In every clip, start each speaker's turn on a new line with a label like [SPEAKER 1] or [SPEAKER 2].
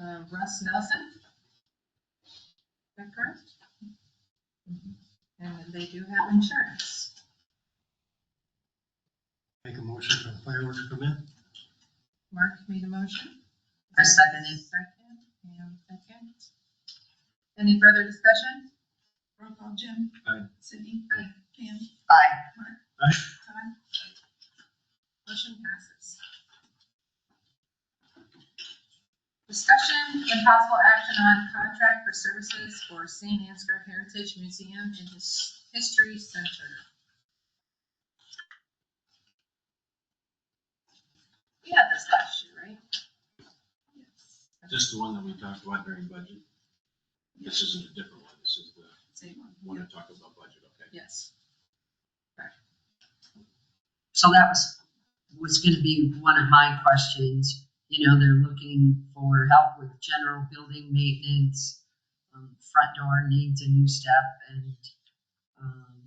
[SPEAKER 1] uh, Russ Nelson. Is that correct? And they do have insurance.
[SPEAKER 2] Make a motion for the fireworks permit?
[SPEAKER 1] Mark made a motion.
[SPEAKER 3] I seconded.
[SPEAKER 1] Second, and second. Any further discussion?
[SPEAKER 4] Roll call, Jim.
[SPEAKER 2] Aye.
[SPEAKER 4] Sydney.
[SPEAKER 1] Aye.
[SPEAKER 4] Pam.
[SPEAKER 3] Aye.
[SPEAKER 4] Todd.
[SPEAKER 1] Motion passes. Discussion and possible action on contract for services for St. Ansgar Heritage Museum and His- History Center. We had this last year, right?
[SPEAKER 4] Yes.
[SPEAKER 5] Just the one that we talked about during budget? This isn't a different one, this is the
[SPEAKER 4] Same one.
[SPEAKER 5] one that talked about budget, okay?
[SPEAKER 1] Yes.
[SPEAKER 3] So that was, was gonna be one of my questions. You know, they're looking for help with general building maintenance. Um, front door needs a new step and, um,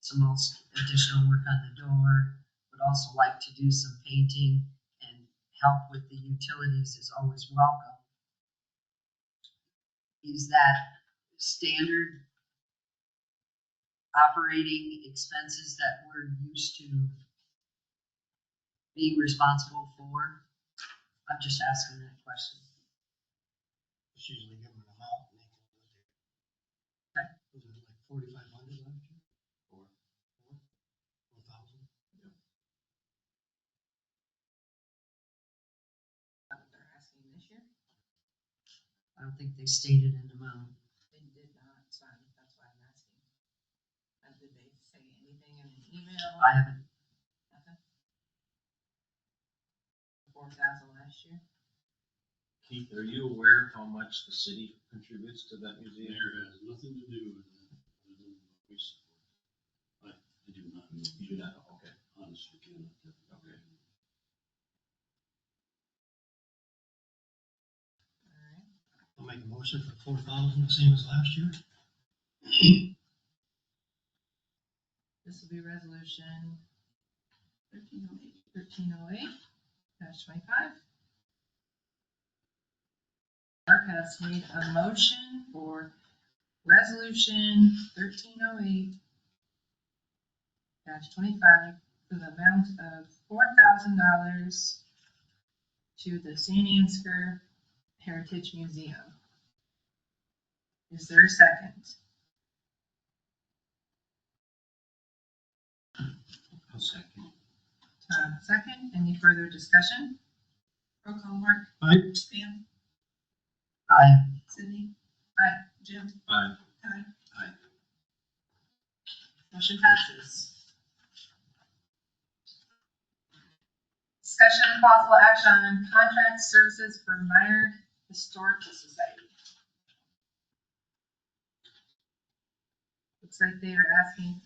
[SPEAKER 3] some else additional work on the door. Would also like to do some painting and help with the utilities is always welcome. Is that standard operating expenses that we're used to being responsible for? I'm just asking that question.
[SPEAKER 2] It's usually given an amount. and they can do it.
[SPEAKER 3] Okay.
[SPEAKER 2] Was it like forty-five hundred last year? Or? Four thousand?
[SPEAKER 1] That's what they're asking this year.
[SPEAKER 3] I don't think they stated an amount.
[SPEAKER 1] They did not, so I'm- that's why I'm asking. Uh, Did they say anything in an email?
[SPEAKER 3] I haven't,
[SPEAKER 1] Four thousand last year?
[SPEAKER 5] Keith, are you aware how much the city contributes to that
[SPEAKER 6] There
[SPEAKER 5] museum?
[SPEAKER 6] has nothing to do with that. with the voice. I, I do not know.
[SPEAKER 5] You do not, okay.
[SPEAKER 6] Honestly, cannot. tell.
[SPEAKER 5] Okay.
[SPEAKER 1] Alright.
[SPEAKER 2] I'll make a motion for four thousand, same as last year.
[SPEAKER 1] This will be resolution
[SPEAKER 4] Thirteen oh eight.
[SPEAKER 1] thirteen oh eight twenty-five. Mark has made a motion for resolution thirteen oh eight twenty-five for the amount of four thousand dollars to the St. Ansgar Heritage Museum. Is there a second?
[SPEAKER 5] I'll second.
[SPEAKER 1] Todd,
[SPEAKER 4] Um,
[SPEAKER 1] second. Any further discussion?
[SPEAKER 4] Roll call, Mark.
[SPEAKER 2] Aye.
[SPEAKER 4] Pam.
[SPEAKER 3] I,
[SPEAKER 4] Sydney.
[SPEAKER 1] Aye.
[SPEAKER 4] Jim.
[SPEAKER 5] Aye.
[SPEAKER 4] Todd.
[SPEAKER 1] Motion passes. Discussion and possible action on contract services for Meyer Historical Society. Looks like they are asking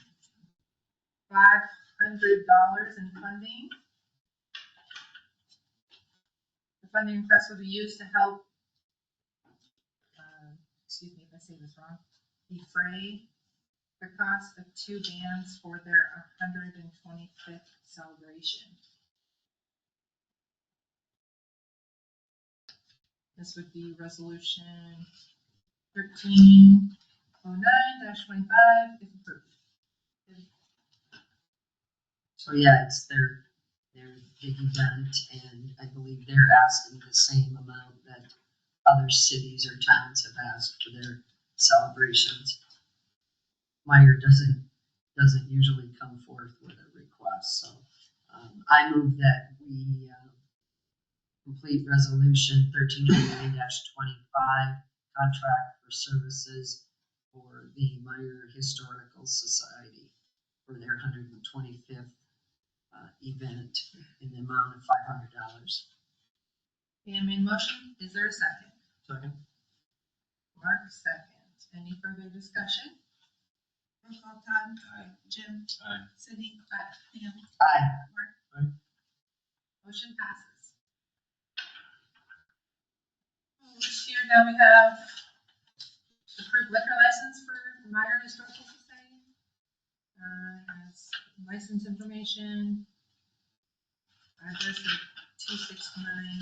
[SPEAKER 1] five hundred dollars in funding. The funding request will be used to help, uh, excuse me if I say this wrong, defray the cost of two bands for their hundred and twenty-fifth celebration. This would be resolution thirteen oh nine twenty-five, if approved.
[SPEAKER 3] so yeah, it's their, their big event and I believe they're asking the same amount that other cities or towns have asked for their celebrations. Meyer doesn't, doesn't usually come forth with a request, so, um, I move that we, uh, complete resolution thirteen eighty-nine twenty-five, contract for services for the Meyer Historical Society for their hundred and twenty-fifth, uh, event in the amount of five hundred dollars.
[SPEAKER 1] Dan made a motion, is there a second?
[SPEAKER 2] Second?
[SPEAKER 1] Mark, second. Any further discussion?
[SPEAKER 4] Roll call, Todd.
[SPEAKER 5] Aye.
[SPEAKER 4] Jim.
[SPEAKER 5] Aye.
[SPEAKER 4] Sydney.
[SPEAKER 1] Aye.
[SPEAKER 4] Pam.
[SPEAKER 3] Aye.
[SPEAKER 1] Motion passes. This year now we have approved liquor license for Meyer Historical Society. Uh, has license information. Address of two six nine